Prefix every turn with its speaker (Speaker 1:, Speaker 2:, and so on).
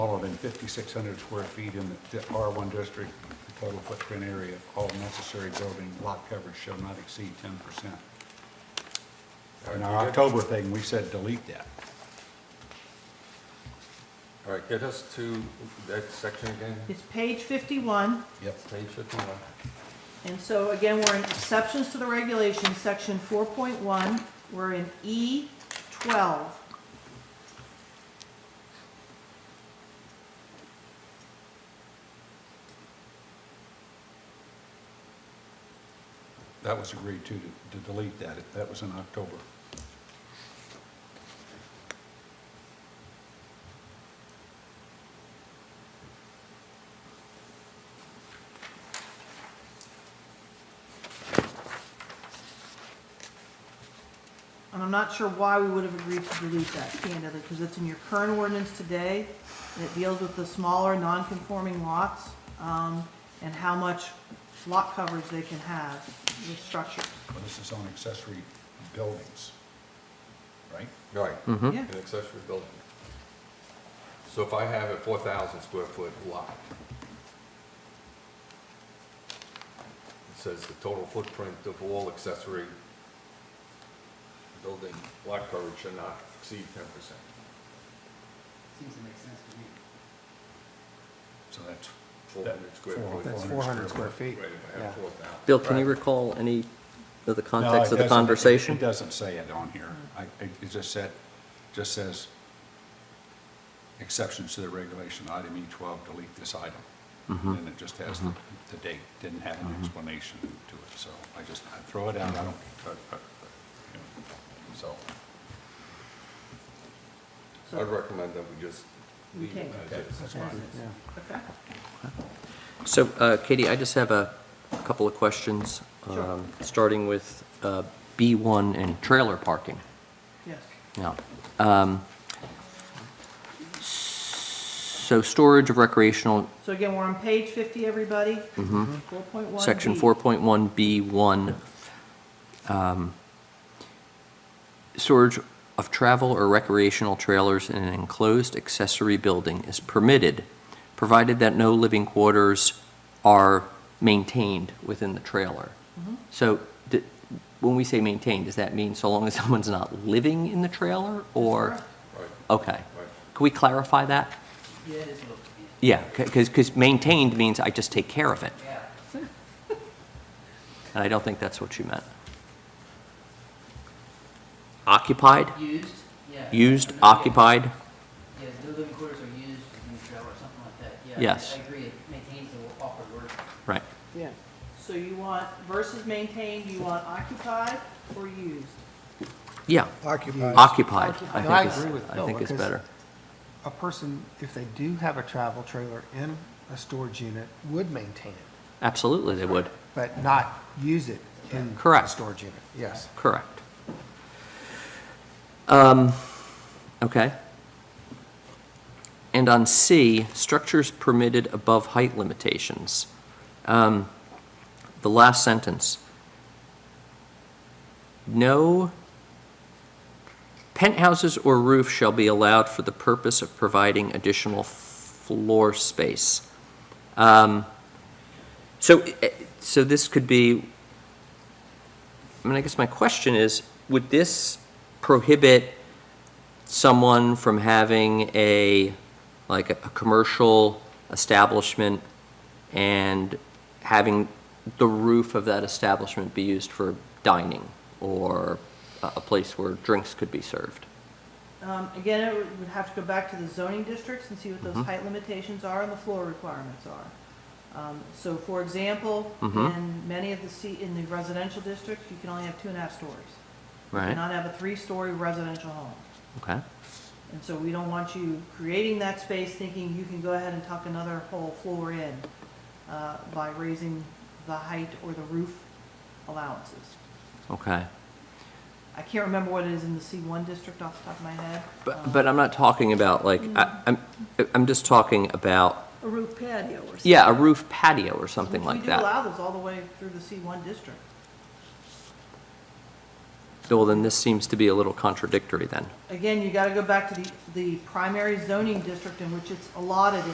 Speaker 1: all of them 5,600 square feet in the di- R1 district, the total footprint area, all necessary building lot coverage shall not exceed 10%. In our October thing, we said delete that.
Speaker 2: All right, get us to that section again,
Speaker 3: It's page 51,
Speaker 1: Yep.
Speaker 2: page 51.
Speaker 3: and so again, we're in exceptions to the regulations, section 4.1, we're in E E12.
Speaker 1: That was agreed to, to delete that. That was in October.
Speaker 3: And I'm not sure why we would have agreed to delete that candidly, because it's in your current ordinance today, and it deals with the smaller, non-conforming lots, um, and how much lot coverage they can have with structures.
Speaker 1: But this is on accessory buildings, right?
Speaker 2: All right,
Speaker 3: Yeah.
Speaker 2: an accessory building. So if I have a 4,000 square foot lot, it says the total footprint of all accessory building lot coverage should not exceed 10%.
Speaker 4: Seems to make sense to me.
Speaker 1: So that's.
Speaker 2: 400 square
Speaker 1: Four-
Speaker 2: foot.
Speaker 5: That's 400 square feet.
Speaker 2: Right, if I
Speaker 5: Yeah.
Speaker 2: have 4,000.
Speaker 6: Bill, can you
Speaker 2: Right.
Speaker 6: recall any of the
Speaker 1: No,
Speaker 6: context
Speaker 1: it
Speaker 6: of the
Speaker 1: doesn't-
Speaker 6: conversation?
Speaker 1: It doesn't say it on here. I, it it just said, just says exceptions to the regulation, item E twelve, delete this item.
Speaker 6: Mm-hmm.
Speaker 1: And it just has the, the date, didn't have an explanation to it, so I just, I throw it out, I don't, I- I- you know, so.
Speaker 2: I'd
Speaker 3: So,
Speaker 2: recommend that we just leave it
Speaker 3: Okay.
Speaker 2: as is.
Speaker 1: That's
Speaker 3: okay,
Speaker 1: fine.
Speaker 6: So, uh, Katie, I just have a couple of questions,
Speaker 3: Sure.
Speaker 6: um, starting with uh, B1 and trailer parking.
Speaker 3: yes.
Speaker 6: Now, um, so storage of recreational,
Speaker 3: So again, we're on page 50, everybody. 4.1.
Speaker 6: section
Speaker 3: B.
Speaker 6: 4.1, B1, um, storage of travel or recreational trailers in an enclosed accessory building is permitted, provided that no living quarters are maintained within the trailer.
Speaker 3: Mm-hmm.
Speaker 6: So d- when we say maintained, does that mean so long as someone's not living in the trailer or?
Speaker 3: correct.
Speaker 2: Right,
Speaker 6: Okay.
Speaker 2: right.
Speaker 6: Can we clarify that?
Speaker 4: Yeah, it is a little,
Speaker 6: Yeah, because, because maintained means I just take care of it,
Speaker 4: yeah.
Speaker 6: and I don't think that's what you meant. Occupied,
Speaker 4: Used, yeah.
Speaker 6: used,
Speaker 4: No, yeah.
Speaker 6: occupied,
Speaker 4: Yeah, the living quarters are used in the trailer or something like that, yeah. I-
Speaker 6: Yes.
Speaker 4: I agree, it maintains the awkward word.
Speaker 6: right.
Speaker 3: So you want versus maintained, you want occupied or used?
Speaker 6: Yeah,
Speaker 5: Occupied.
Speaker 6: occupied,
Speaker 5: No, I
Speaker 6: I think
Speaker 5: agree
Speaker 6: is,
Speaker 5: with
Speaker 6: I
Speaker 5: Bill,
Speaker 6: think is
Speaker 5: because-
Speaker 6: better.
Speaker 5: A person, if they do have a travel trailer in a storage unit, would maintain it,
Speaker 6: Absolutely, they would,
Speaker 5: but not use it in a
Speaker 6: Correct.
Speaker 5: storage unit. Yes.
Speaker 6: correct. Um, okay. And on C, structures permitted above height limitations. Um, The last sentence. No penthouses or roof shall be allowed for the purpose of providing additional floor space. Um, So, eh, so this could be, I mean, I guess my question is, would this prohibit someone from having a, like, a, a commercial establishment and having the roof of that establishment be used for dining or a, a place where drinks could be served?
Speaker 3: Um, Again, it would- would have to go back to the zoning districts and see what those
Speaker 6: Mhm.
Speaker 3: height limitations are and the floor requirements are. Um, So for example,
Speaker 6: Mhm.
Speaker 3: in many of the, C- in the residential districts, you can only have two and a half stories. You
Speaker 6: Right?
Speaker 3: cannot have a three-story residential home.
Speaker 6: Okay,
Speaker 3: And so we don't want you creating that space thinking you can go ahead and tuck another whole floor in uh, by raising the height or the roof allowances.
Speaker 6: okay.
Speaker 3: I can't remember what it is in the C1 district off the top of my head.
Speaker 6: But, but I'm not talking about, like, I, I'm, I'm just talking about,
Speaker 3: A roof patio or something.
Speaker 6: yeah, a roof patio or something
Speaker 3: Which
Speaker 6: like
Speaker 3: We do
Speaker 6: that.
Speaker 3: allow those all the way through the C1 district.
Speaker 6: Bill, then this seems to be a little contradictory then.
Speaker 3: Again, you gotta go back to the, the primary zoning district in which it's allotted